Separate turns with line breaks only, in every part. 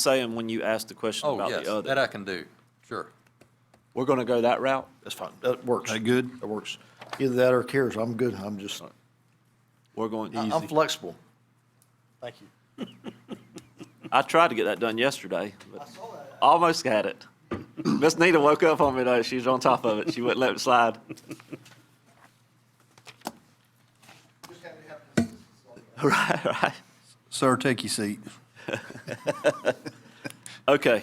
saying when you asked the question
Oh,
about
yes,
the
that
other.
I can do, sure.
We're going to go that route?
That's fine. That works.
That good?
That works. Either that or cares. I'm good. I'm just,
We're going,
I- I'm flexible. Thank you.
I tried to get that done yesterday, but almost had it. Miss Nita woke up on me though. She was on top of it. She wouldn't let it slide. Right, right.
Sir, take your seat.
Okay.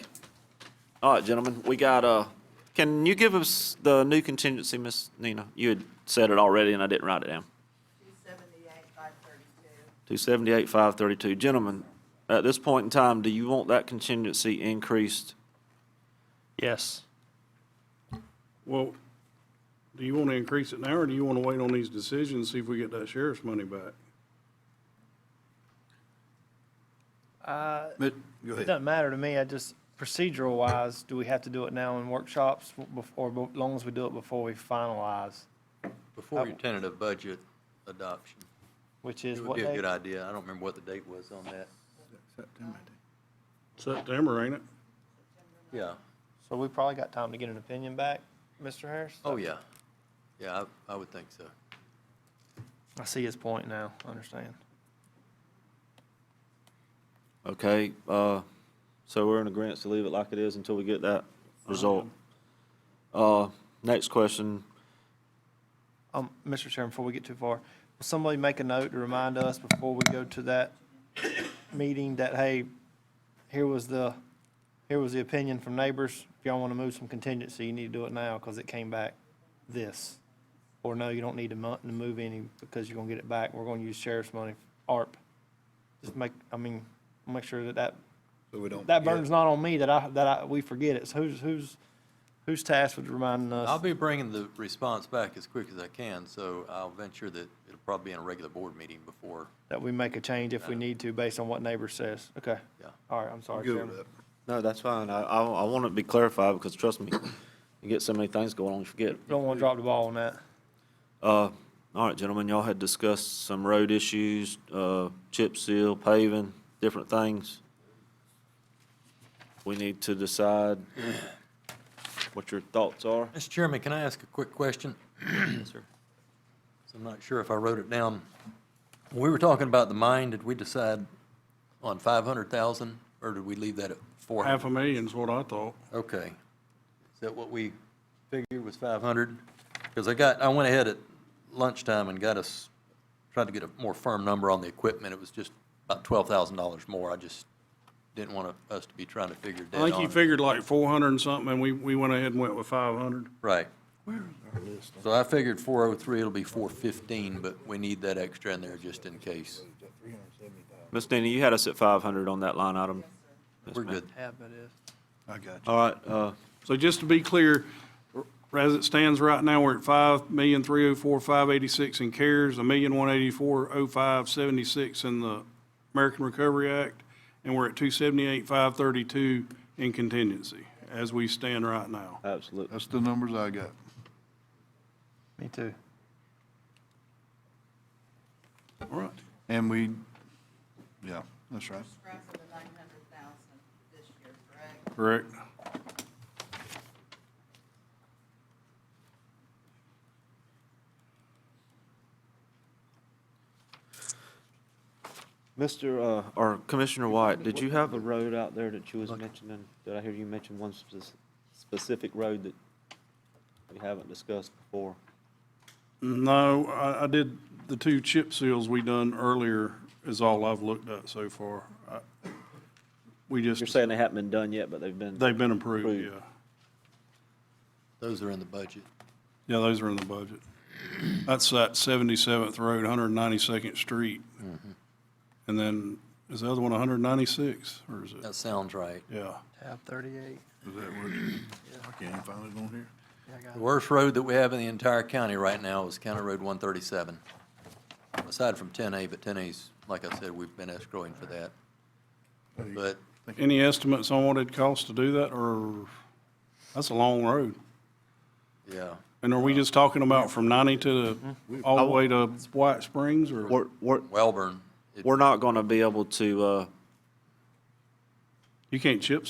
All right, gentlemen, we got, uh, can you give us the new contingency, Miss Nina? You had said it already and I didn't write it down.
278, 532.
Two seventy-eight, five thirty-two. Gentlemen, at this point in time, do you want that contingency increased?
Yes.
Well, do you want to increase it now, or do you want to wait on these decisions, see if we get that sheriff's money back?
But, go
It
ahead.
doesn't matter to me, I just, procedural wise, do we have to do it now in workshops, bef- or as long as we do it before we finalize,
Before your tentative budget adoption,
which is
it would
what
be a
day?
good idea. I don't remember what the date was on that.
September, ain't it?
Yeah.
So we probably got time to get an opinion back, Mr. Harris?
Oh, yeah. Yeah, I, I would think so.
I see his point now, I understand.
Okay, uh, so we're in agreement to leave it like it is until we get that result. Uh, next question,
Um, Mr. Chairman, before we get too far, will somebody make a note to remind us before we go to that meeting that, hey, here was the, here was the opinion from neighbors. If y'all want to move some contingency, you need to do it now because it came back this. Or no, you don't need to mo- to move any because you're going to get it back. We're going to use sheriff's money, ARP. Just make, I mean, make sure that that,
So we don't
that
forget.
burden's not on me that I, that I, we forget it. So who's, who's, who's tasked with reminding us?
I'll be bringing the response back as quick as I can, so I'll venture that it'll probably be in a regular board meeting before,
that we make a change if we need to based on what neighbor says. Okay.
Yeah.
All right, I'm sorry,
Good with
Chairman.
that.
No, that's fine. I, I, I want it to be clarified because trust me, you get so many things going on, you forget.
Don't want to drop the ball on that.
Uh, all right, gentlemen, y'all had discussed some road issues, uh, chip seal, paving, different things. We need to decide what your thoughts are.
Mr. Chairman, can I ask a quick question? Yes, sir. I'm not sure if I wrote it down. When we were talking about the mine, did we decide on 500,000, or did we leave that at 400?
Half a million's what I thought.
Okay. Is that what we figured was 500? Because I got, I went ahead at lunchtime and got us, tried to get a more firm number on the equipment. It was just about $12,000 more. I just didn't want us to be trying to figure dead
I think you
on.
figured like four hundred and something, and we, we went ahead and went with five hundred.
Right. So I figured 403, it'll be 415, but we need that extra in there just in case.
Ms. Nina, you had us at five hundred on that line item. Yes,
We're
ma'am.
good.
Yeah, that is.
I got you.
All right, uh,
So just to be clear, as it stands right now, we're at five million, three oh four, five eighty-six in CARES, a million, one eighty-four, oh five, seventy-six in the American Recovery Act, and we're at two seventy-eight, five thirty-two in contingency, as we stand right now.
absolutely.
That's the numbers I got.
Me too.
All right.
And we, yeah, that's right.
Scrapping the 900,000 this year, correct?
Correct.
Mr., uh, or Commissioner White, did you have a road out there that you was mentioning? Did I hear you mention one spec- specific road that we haven't discussed before?
No, I, I did, the two chip seals we done earlier is all I've looked at so far. I- We
You're
just,
saying they haven't been done yet, but they've been.
they've been approved,
Approved.
yeah.
Those are in the budget.
Yeah, those are in the budget. That's that 77th Road, 192nd Street. And then, is the other one 196, or is it?
That sounds right.
Yeah.
Tab thirty-eight.
Is that what? I can't even find it on here.
The worst road that we have in the entire county right now is County Road 137. Aside from 10A, but 10A's, like I said, we've been escrowing for that. But
Any estimates on what it costs to do that, or, that's a long road.
Yeah,
And are we just talking about from 90 to, the- all the way to White Springs, or?
We're, we're,
Welborn. it-
we're not gonna be able to, uh,
You can't chip